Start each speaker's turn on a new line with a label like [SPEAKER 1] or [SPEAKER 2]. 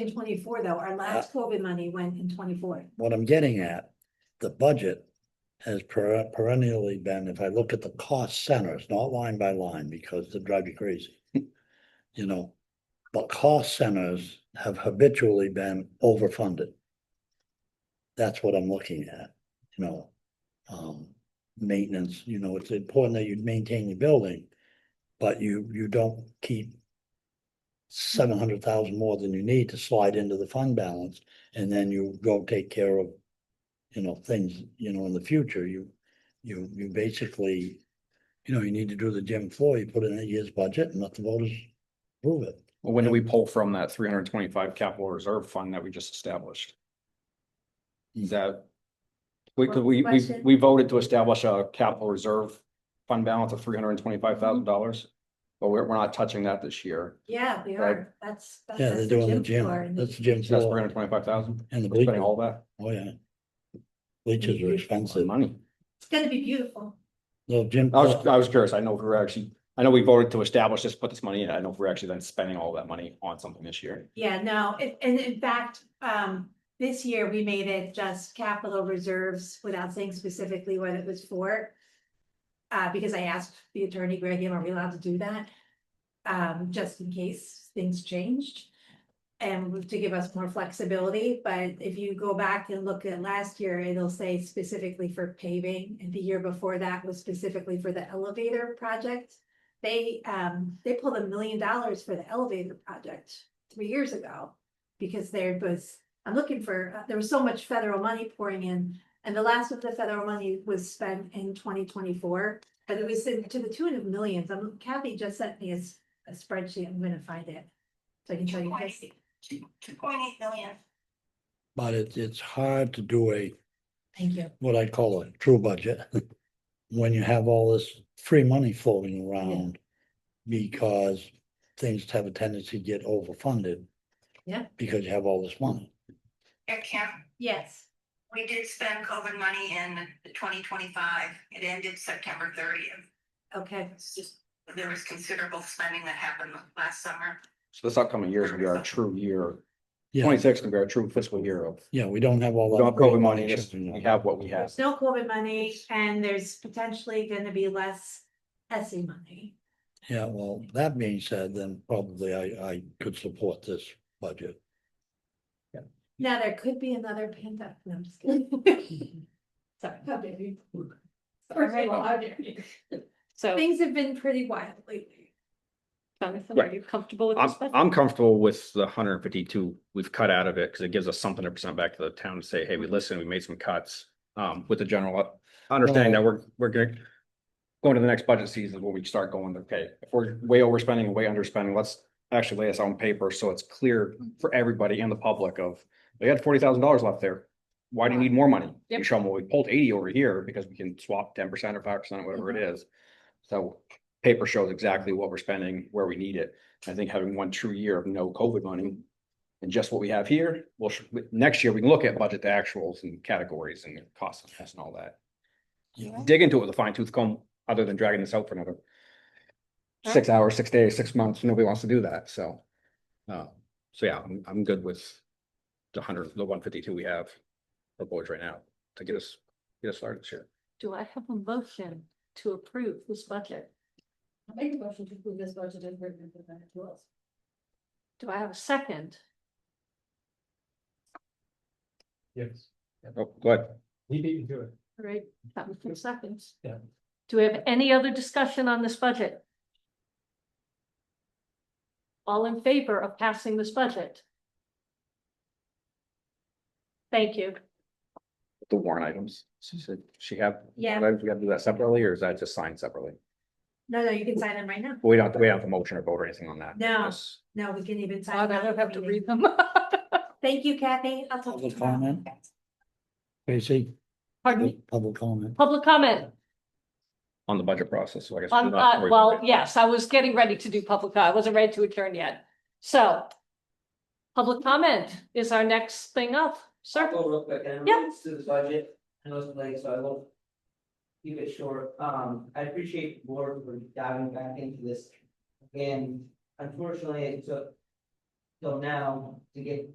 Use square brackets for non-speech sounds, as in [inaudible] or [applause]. [SPEAKER 1] in twenty-four though, our last COVID money went in twenty-four.
[SPEAKER 2] what I'm getting at, the budget has per- perennially been, if I look at the cost centers, not line by line, because they drive you crazy. You know, but cost centers have habitually been overfunded. That's what I'm looking at, you know, um, maintenance, you know, it's important that you maintain your building, but you, you don't keep seven hundred thousand more than you need to slide into the fund balance and then you go take care of, you know, things, you know, in the future, you, you, you basically, you know, you need to do the gym floor, you put in a year's budget and let the voters prove it.
[SPEAKER 3] Well, When do we pull from that three hundred and twenty-five capital reserve fund that we just established? Is that? We, could- we, we,
[SPEAKER 1] Question.
[SPEAKER 3] we voted to establish a capital reserve fund balance of three hundred and twenty-five thousand dollars. But we're, we're not touching that this year.
[SPEAKER 1] Yeah, we
[SPEAKER 3] Right.
[SPEAKER 1] are. That's. that's-
[SPEAKER 2] Yeah,
[SPEAKER 1] that's
[SPEAKER 2] they're doing the gym,
[SPEAKER 1] floor and the-
[SPEAKER 2] that's the gym
[SPEAKER 3] So That's three
[SPEAKER 2] floor
[SPEAKER 3] hundred and twenty-five thousand,
[SPEAKER 2] and the
[SPEAKER 3] we're
[SPEAKER 2] bleachers,
[SPEAKER 3] spending all that
[SPEAKER 2] oh yeah. Bleachers are expensive,
[SPEAKER 3] money.
[SPEAKER 1] It's gonna be beautiful.
[SPEAKER 2] no gym,
[SPEAKER 3] I was, I was curious. I know if we're actually, I know we voted to establish this, put this money in. I know if we're actually then spending all that money on something this year.
[SPEAKER 1] Yeah, no, it- and in fact, um, this year we made it just capital reserves without saying specifically what it was for. Uh, because I asked the attorney, Greg, are we allowed to do that? Um, just in case things changed. And to give us more flexibility, but if you go back and look at last year, it'll say specifically for paving. And the year before that was specifically for the elevator project. They, um, they pulled a million dollars for the elevator project three years ago. Because there was, I'm looking for, uh, there was so much federal money pouring in, and the last of the federal money was spent in twenty twenty-four. But it was in- to the tune of millions, I'm, Kathy just sent me a, s- a spreadsheet, I'm gonna find it. So I can tell you guys,
[SPEAKER 4] two, two point eight million.
[SPEAKER 2] but it's, it's hard to do a,
[SPEAKER 1] thank you,
[SPEAKER 2] what I call a true budget. When you have all this free money floating around, because things have a tendency to get overfunded.
[SPEAKER 1] Yeah.
[SPEAKER 2] Because you have all this money.
[SPEAKER 4] It can't,
[SPEAKER 1] yes,
[SPEAKER 4] we did spend COVID money in twenty twenty-five. It ended September thirtieth.
[SPEAKER 1] okay,
[SPEAKER 4] It's just, there was considerable spending that happened last summer.
[SPEAKER 3] So this upcoming year is gonna be our true year.
[SPEAKER 2] Yeah.
[SPEAKER 3] Twenty-six gonna be our true fiscal year of,
[SPEAKER 2] Yeah, we don't have all
[SPEAKER 3] we
[SPEAKER 2] that.
[SPEAKER 3] don't have COVID
[SPEAKER 2] free
[SPEAKER 3] money. just
[SPEAKER 2] sitting
[SPEAKER 3] We
[SPEAKER 2] there.
[SPEAKER 3] have what we have.
[SPEAKER 1] there's no COVID money, and there's potentially gonna be less SE money.
[SPEAKER 2] Yeah, well, that being said, then probably I, I could support this budget.
[SPEAKER 1] Now, there could be another pandemic, no, I'm just [laughs] kidding. Sorry. How dare you? First of all, how dare you?
[SPEAKER 5] So,
[SPEAKER 1] Things have been pretty wild lately.
[SPEAKER 5] Jonathan, are
[SPEAKER 3] Right.
[SPEAKER 5] you comfortable with
[SPEAKER 3] I'm,
[SPEAKER 5] this? budget?
[SPEAKER 3] I'm comfortable with the hundred and fifty-two we've cut out of it, because it gives us something to present back to the town to say, hey, we listened, we made some cuts. Um, with the general, understanding that we're, we're gonna. Going to the next budget season when we start going, okay, if we're way overspending, and way underspending, let's actually lay this out on paper, so it's clear for everybody and the public of. We had forty thousand dollars left there. Why do you need more money? You
[SPEAKER 5] Yep.
[SPEAKER 3] show them, well, we pulled eighty over here because we can swap ten percent or five percent, whatever it is. So paper shows exactly what we're spending, where we need it. I think having one true year of no COVID money. And just what we have here, well, sh- next year we can look at budget to actuals and categories and costs and tests and all that.
[SPEAKER 2] Yeah.
[SPEAKER 3] Dig into it with a fine tooth comb, other than dragging this out for another.
[SPEAKER 5] Sure.
[SPEAKER 3] Six hours, six days, six months, nobody wants to do that, so. Uh, so yeah, I'm, I'm good with the hundred, the one fifty-two we have for boards right now to get us, get us started this year.
[SPEAKER 5] Do I have a motion to approve this budget?
[SPEAKER 6] I make a motion to approve this budget as written and presented to us.
[SPEAKER 5] Do I have a second?
[SPEAKER 7] Yes,
[SPEAKER 3] Oh, go ahead.
[SPEAKER 7] we beat you to it.
[SPEAKER 5] All right, that was two seconds.
[SPEAKER 7] Yeah.
[SPEAKER 5] Do we have any other discussion on this budget? All in favor of passing this budget? Thank you.
[SPEAKER 3] The warrant items, she said, she have,
[SPEAKER 1] Yeah,
[SPEAKER 3] items we gotta do that separately, or is that just signed separately?
[SPEAKER 1] no, no, you can sign them right now.
[SPEAKER 3] We don't, we don't have a motion or vote or anything on that.
[SPEAKER 1] No.
[SPEAKER 3] Yes.
[SPEAKER 1] Oh, No, we can even sign.
[SPEAKER 5] I
[SPEAKER 1] them
[SPEAKER 5] don't
[SPEAKER 1] after
[SPEAKER 5] have to
[SPEAKER 1] the
[SPEAKER 5] read
[SPEAKER 1] meeting.
[SPEAKER 5] them.
[SPEAKER 1] Thank you, Kathy. I'll talk to you
[SPEAKER 2] Public
[SPEAKER 1] tomorrow.
[SPEAKER 2] comment, Casey,
[SPEAKER 5] Pardon me?
[SPEAKER 2] public comment.
[SPEAKER 5] Public comment.
[SPEAKER 3] On the budget process, so I guess. we're
[SPEAKER 5] Um,
[SPEAKER 3] not
[SPEAKER 5] uh,
[SPEAKER 3] worried
[SPEAKER 5] well,
[SPEAKER 3] about it.
[SPEAKER 5] yes, I was getting ready to do public, I wasn't ready to adjourn yet. So. Public comment is our next thing up, sir.
[SPEAKER 8] Go real quick, and
[SPEAKER 5] Yeah.
[SPEAKER 8] it's to the budget, I know it's late, so I will keep it short, um, I appreciate the board for diving back into this. Again, unfortunately, it took till now to get